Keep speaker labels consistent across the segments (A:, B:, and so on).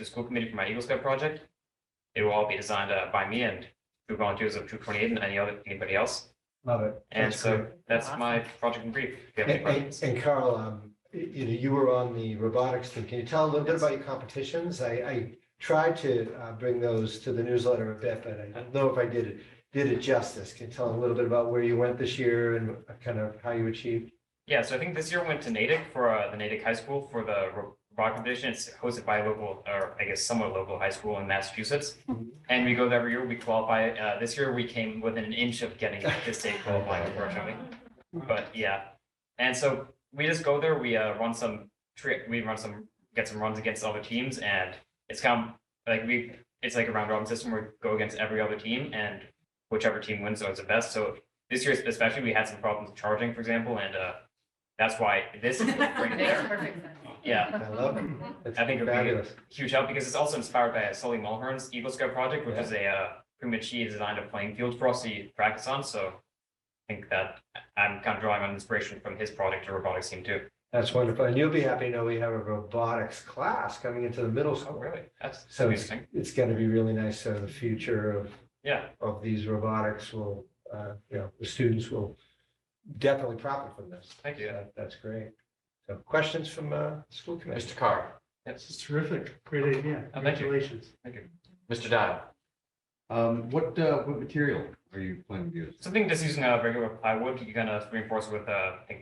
A: the school committee for my Eagle Scout project. It will all be designed uh, by me and through volunteers of two twenty-eight and any other, anybody else.
B: Love it.
A: And
B: That's
A: so
B: great.
A: that's
C: Awesome.
A: my project in brief. If you have any
B: And- And
A: questions.
B: and Carl, um, y- you know, you were on the robotics team. Can you tell a little bit about your competitions? I, I tried to uh, bring those to the newsletter a bit, but I don't know if I did it, did it justice. Can you tell a little bit about where you went this year and kind of how you achieved?
A: Yeah, so I think this year went to Natick for uh, the Natick High School for the ro- rock competition. It's hosted by a local, or I guess somewhat local high school in Massachusetts.
B: Mhm.
A: And we go there every year, we qualify. Uh, This year, we came within an inch of getting the state qualifying, unfortunately. But yeah, and so we just go there, we uh, run some trick, we run some, get some runs against other teams and it's kind of like we, it's like a round robin system where we go against every other team and whichever team wins is the best. So this year especially, we had some problems charging, for example, and uh, that's why this is right
C: Makes
A: there.
C: perfect sense.
A: Yeah,
B: I love it. It's
A: I think it'd be
B: fabulous.
A: huge help because it's also inspired by Sully Mulhern's Eagle Scout project, which
B: Yeah.
A: is a uh, pretty much he designed a playing field for us to practice on. So I think that I'm kind of drawing on inspiration from his project to robotics team too.
B: That's wonderful. And you'll be happy to know we have a robotics class coming into the middle
A: Oh,
B: school.
A: really? That's
B: So it's,
A: interesting.
B: it's going to be really nice. So the future of
A: Yeah,
B: of these robotics will, uh, you know, the students will definitely profit from this.
A: thank you.
B: That- That's great. So questions from, uh, school committee?
D: Mr. Carr,
A: Yes.
E: This is terrific. Great idea.
A: Oh, thank you.
E: Congratulations.
D: Mr. Dial,
F: Um, what, uh, what material are you planning to use?
A: Something just using a regular plywood, you're gonna reinforce with, uh, I think.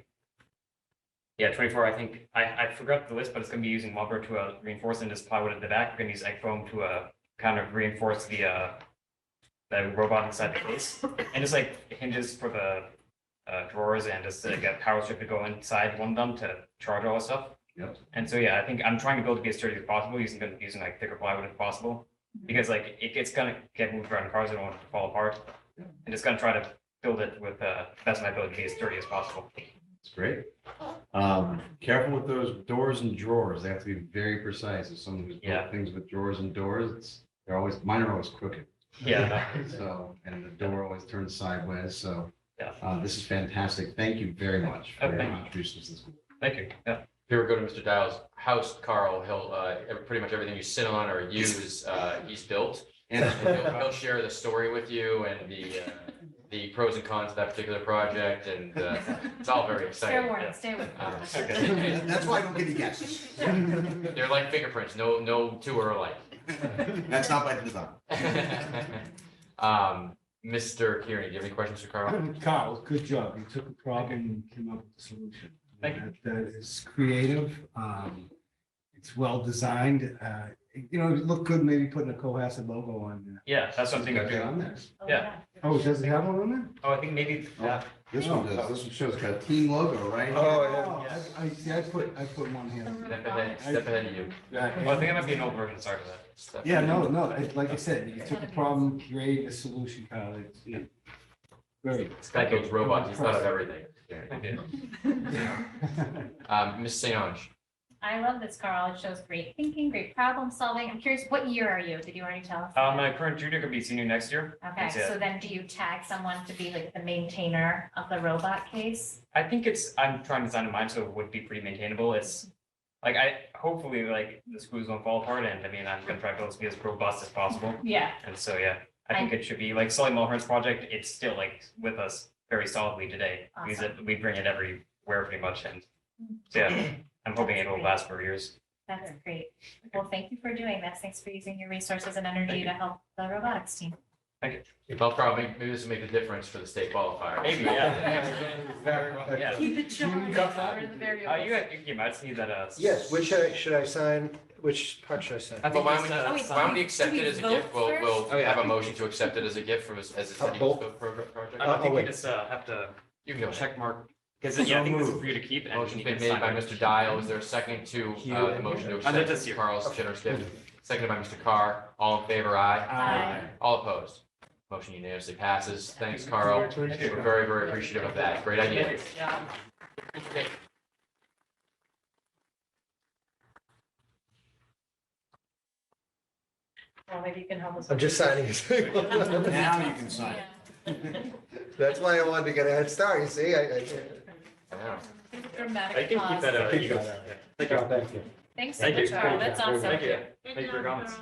A: Yeah, twenty-four, I think, I, I forgot the list, but it's gonna be using lumber to uh, reinforce and just plywood at the back, we're gonna use egg foam to, uh, kind of reinforce the, uh. The robot inside the case, and just like hinges for the, uh, drawers and just like a power strip to go inside one of them to charge all the stuff.
F: Yep.
A: And so, yeah, I think I'm trying to build to be as sturdy as possible, using, using like thicker plywood if possible, because like it gets gonna get moved around cars, I don't want it to fall apart. And just gonna try to build it with uh best of my ability to be as sturdy as possible.
F: It's great. Um, careful with those doors and drawers. They have to be very precise. If someone who's
A: Yeah.
F: built things with drawers and doors, it's, they're always, mine are always crooked.
A: Yeah,
F: So, and the door always turns sideways. So,
A: Yeah.
F: uh, this is fantastic. Thank you very much for your
A: Okay.
F: contributions to this.
A: thank you. Yeah,
D: if you ever go to Mr. Dial's house, Carl, he'll, uh, ev- pretty much everything you sit on or use, uh, he's built. And He'll he'll share the story with you and the, uh, the pros and cons of that particular project and, uh, it's all very
C: Fair
D: exciting.
C: warning, stay with
D: Uh,
F: And That's why I don't get any guesses.
D: They're like fingerprints, no, no two are alike.
F: That's not by design.
D: Um, Mr. Kearney, do you have any questions for Carl?
E: Carl, good job. You took a problem and came up with a solution.
A: Thank you.
E: That- That is creative. Um, it's well designed. Uh, you know, it looked good, maybe putting a Cohasset logo on there.
A: yeah, that's something I
E: Is that
A: do.
E: on there?
A: Yeah.
E: Oh, does it have one on there?
A: Oh, I think maybe, yeah,
F: This one does. This one shows got a clean logo, right?
B: Oh,
E: yeah. I, I, see, I put, I put one here.
D: Step ahead, step ahead of you.
A: well, I think I might be an old version, sorry for that.
D: Step-
E: Yeah, no, no, it's like I said, you took a problem, created a solution, Carl. It's, you know, Very.
D: This guy builds robots, he's thought of everything.
A: Thank you.
D: Um, Ms. St. Ange,
C: I love this, Carl. It shows great thinking, great problem solving. I'm curious, what year are you? Did you already tell us?
A: Uh, my current junior could be senior next year.
C: Okay,
A: That's it.
C: so then do you tag someone to be like the maintainer of the robot case?
A: I think it's, I'm trying to design a mine, so it would be pretty maintainable. It's like I, hopefully, like the screws won't fall apart and I mean, I'm gonna try to build it to be as robust as possible.
C: Yeah.
A: And so, yeah, I think it should be like Sully Mulhern's project. It's still like with us very solidly today. We use it- we bring it everywhere pretty much and so, yeah, I'm hoping it will last for years.
C: That's great. Well, thank you for doing this. Thanks for using your resources and
A: Thank
C: energy to help the robotics team.
D: well, probably, maybe this will make the difference for the state qualifier.
A: Maybe, yeah. Yeah.
B: yeah.
C: Keep it
E: short.
B: got that?
C: We're the variable.
A: Uh, you guys, you might see that, uh.
B: Yes, which should I, should I sign? Which part should I sign?
A: I
D: But
A: think
D: why
A: it's,
D: don't we,
A: uh,
C: Oh, wait,
D: why don't we
C: do
D: accept
C: we
D: it as a
C: vote
D: gift? We'll,
A: Oh,
D: we'll
A: yeah, I
D: have a
A: think-
D: motion to accept it as a gift from, us- as a
B: Uh,
D: study
B: both?
D: pro-
A: I don't
D: project.
B: Uh,
A: think
B: oh,
A: we
B: wait.
A: just, uh, have to
D: You can go ahead.
A: check mark, because yeah, I think this is for you to keep. and
D: Motion's
A: you can
D: been made
A: sign
D: by
A: it.
D: Mr. Dial. Is there a second to, uh, the motion to
A: Under this
D: accept
A: year.
D: Carl's generous gift? Seconded by Mr. Carr. All in favor, aye.
C: Aye.
D: All opposed. Motion unanimously passes. Thanks, Carl. We're very, very appreciative of that. Great idea. Okay.
C: Well, maybe you can help us.
B: I'm just signing. it.
F: Now you can sign.
B: That's why I wanted to get a head start, you see? I, I.
D: I know.
C: Dramatic
A: I can keep
C: pause.
A: that, uh,
B: Thank
A: you
B: you.
A: guys- yeah.
B: Thank you.
C: Thanks so
A: Thank you.
C: much, Carl. That's
B: Thank you.
C: awesome.
A: Thank you. Thank you for your comments.